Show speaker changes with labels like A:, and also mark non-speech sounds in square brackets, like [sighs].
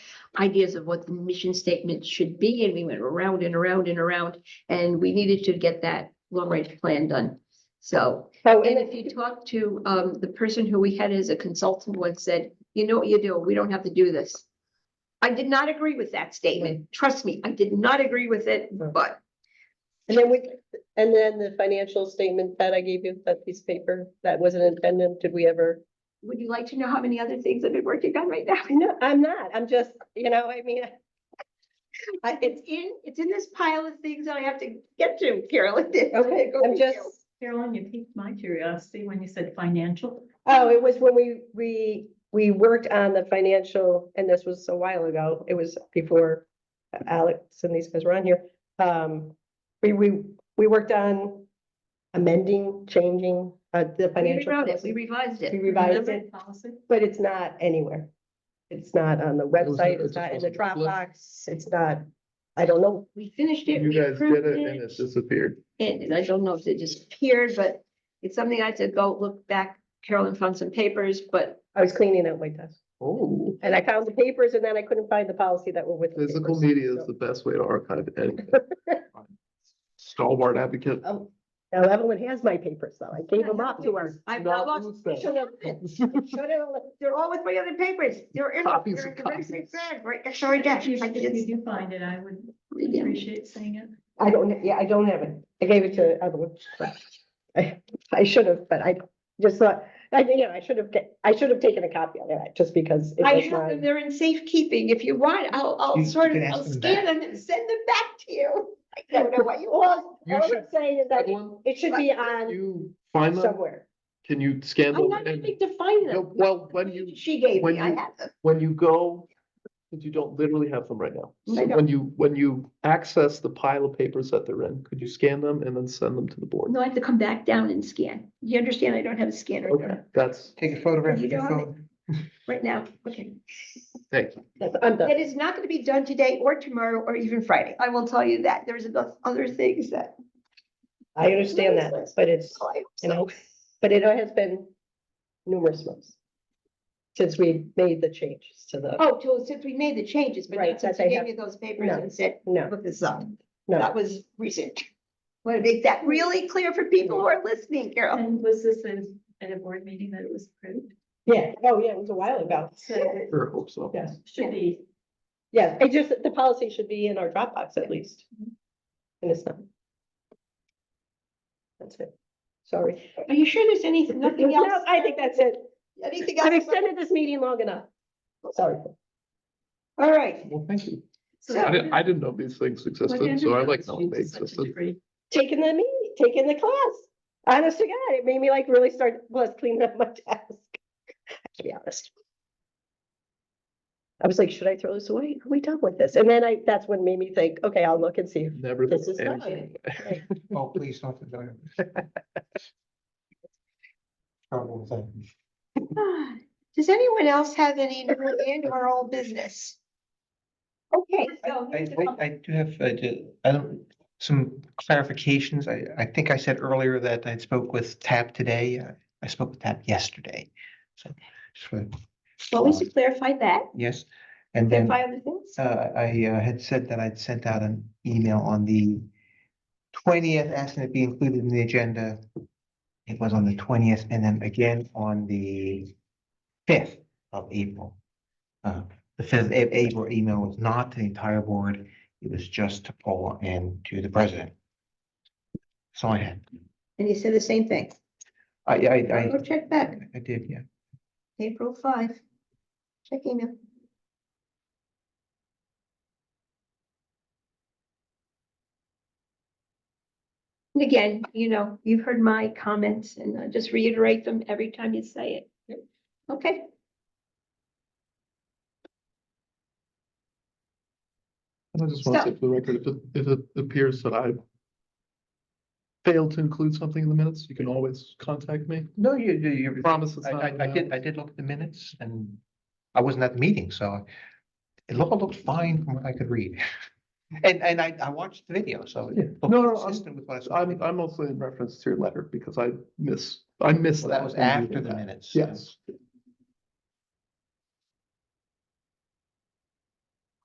A: ideas of what the mission statement should be, and we went around and around and around, and we needed to get that long-range plan done. So,
B: So,
A: and
B: and
A: if you talk to, um, the person who we had as a consultant once said, you know what you do, we don't have to do this. I did not agree with that statement, trust me, I did not agree with it, but
B: and then we, and then the financial statement that I gave you, that piece of paper, that wasn't intended, did we ever?
A: would you like to know how many other things I've been working on right
B: [laughs]
A: now?
B: No, I'm not, I'm just, you know, I mean, [laughs] I, it's,
A: It's in, it's in this pile of things that I have to get to, Carolyn. [laughs]
B: okay, I'm just,
C: Carolyn, you piqued my curiosity when you said financial.
B: oh, it was when we, we, we worked on the financial, and this was a while ago, it was before Alex and these guys were on here. Um, we, we, we worked on amending, changing, uh, the
A: We
B: financial.
A: rewrote it,
B: policy.
A: we revised
B: We
A: it.
B: revised
C: Remember
B: it.
C: the Policy.
B: But it's not anywhere. It's not on the
D: was-
B: website,
D: it's
B: it's not in the
D: supposed to be
B: Dropbox, it's not, I don't know.
A: We finished it,
D: You
A: we
D: guys
A: approved
D: did it and it
A: it.
D: disappeared.
A: And I don't know if it disappeared, but it's something I had to go look back. Carolyn found some papers, but
B: I was cleaning out my desk
D: Oh.
B: and I found the papers and then I couldn't find the policy that were with. the
D: Physical
B: papers,
D: media is
B: so-
D: the best way to archive anything. [laughs] Stalwart advocate.
B: Oh, now Evelyn has my papers though. I gave them up to her.
A: I've
D: Not
A: not lost.
D: lose that.
A: shut up.
B: Shut it,
A: They're all with my other papers. They're in.
D: Copies
A: they're
D: and
A: in the very same
D: copies.
A: bag, Right, next to our desk.
C: If
A: I
C: you- if
A: did-
C: you do find it, I would
A: Yeah.
C: appreciate seeing it.
B: [laughs] I don't, yeah, I don't have it. I gave it to Evelyn. but I, I should have, but I just thought, I, you know, I should have, ta- I should have taken a copy of that just because. it
A: I
B: was
A: have
B: mine.
A: them. They're in safekeeping. If you want, I'll, I'll
E: You-
A: sort
E: you
A: of,
E: can ask
A: I'll
E: them
A: scan
E: back.
A: them and send them back to you. [laughs] I
B: Yeah,
A: don't know what you want.
B: All,
D: You
B: all I'm
D: should-
B: saying is that it-
D: Evelyn,
B: it should be on
D: You find them,
B: somewhere.
D: can you
A: I'm
D: scan them?
A: not
D: and-
A: going to find
D: No,
A: them.
D: Well, when you,
A: She gave
D: when
A: me, I
D: you-
A: have them.
D: when you go, because you don't literally have them right now.
A: I
D: So
A: know.
D: When you, when you access the pile of papers that they're in, could you scan them and then send them to the board?
A: No, I have to come back down and scan. You understand, I don't have a scanner
D: Okay, that's,
E: Take a photograph
A: You
E: with your
A: don't have it.
E: phone.
A: [laughs] right now. Okay.
D: thank you.
B: That's, I'm done.
A: That is not going to be done today or tomorrow or even Friday. I will tell you that. There's enough other things that.
B: I understand that, but it's,
A: Oh, I hope
B: you
A: so.
B: know, but it has been numerous months since we made the changes to the,
A: Oh, till since we made the changes, but
B: Right,
A: not since
B: that
A: you
B: they
A: gave
B: have-
A: me those papers
B: No.
A: and said,
B: no,
A: look this up.
B: no.
A: That was recent. Want to make that really clear for people who are listening, Carol.
C: And was this a- at a board meeting that it was approved?
B: Yeah, oh, yeah, it was a while ago.
C: So it
D: Sure, hope so.
B: Yes,
C: should be,
B: yeah, it just, the policy should be in our Dropbox at least. And it's not. That's it. Sorry.
A: Are you sure there's anything, nothing
B: No,
A: else?
B: I think that's it.
A: Anything
B: I've
A: else?
B: extended this meeting long enough. Sorry.
A: All right.
D: Well, thank you.
C: so
A: So-
D: I didn't, I didn't know these things existed, so I like knowing they existed.
B: taking the meeting, taking the class. Honest to God, it made me like really start, plus cleaning up my [laughs] desk. To be honest. I was like, should I throw this away? Are we done with this? And then I, that's when made me think, okay, I'll look and see. if
D: Never.
B: This is
D: and-
B: mine.
E: Oh, please don't. don't. Trouble with that.
A: [sighs] Does anyone else have any new and or old business? Okay,
E: I, I, I do have, I do, I don't, some clarifications. I, I think I said earlier that I spoke with TAP today. I- I spoke with TAP yesterday. So, just wanna-
A: well, we should clarify that,
E: yes, and then.
A: clarify other things.
E: Uh, I uh, had said that I'd sent out an email on the twentieth, asking it be included in the agenda. It was on the twentieth, and then again on the fifth of April. Uh, the fifth of April email was not to the entire board, it was just to Paul and to the president. So I had,
A: And you said the same thing.
E: I, I,
A: Go
E: I,
A: check back,
E: I did, yeah.
A: April five. Check email. And again, you know, you've heard my comments and I just reiterate them every time you say it. Okay.
D: And I just want to say for the record, if it, if it appears that I failed to include something in the minutes, you can always contact me.
E: No, you, you, you.
D: Promise it's
E: I,
D: not.
E: I,
D: in the
E: I did, I
D: minutes.
E: did look at the minutes and I wasn't at the meeting, so it looked, looked fine from what I could read. [laughs] And, and I, I watched the video, so. it
D: Yeah.
E: looked
D: No, no, I'm-
E: consistent with what I saw. in the
D: I'm,
E: video.
D: I'm mostly in reference to your letter because I miss, I missed
E: Well,
D: that.
E: That was
D: when you
E: after
D: did
E: the
D: that.
E: minutes.
D: Yes,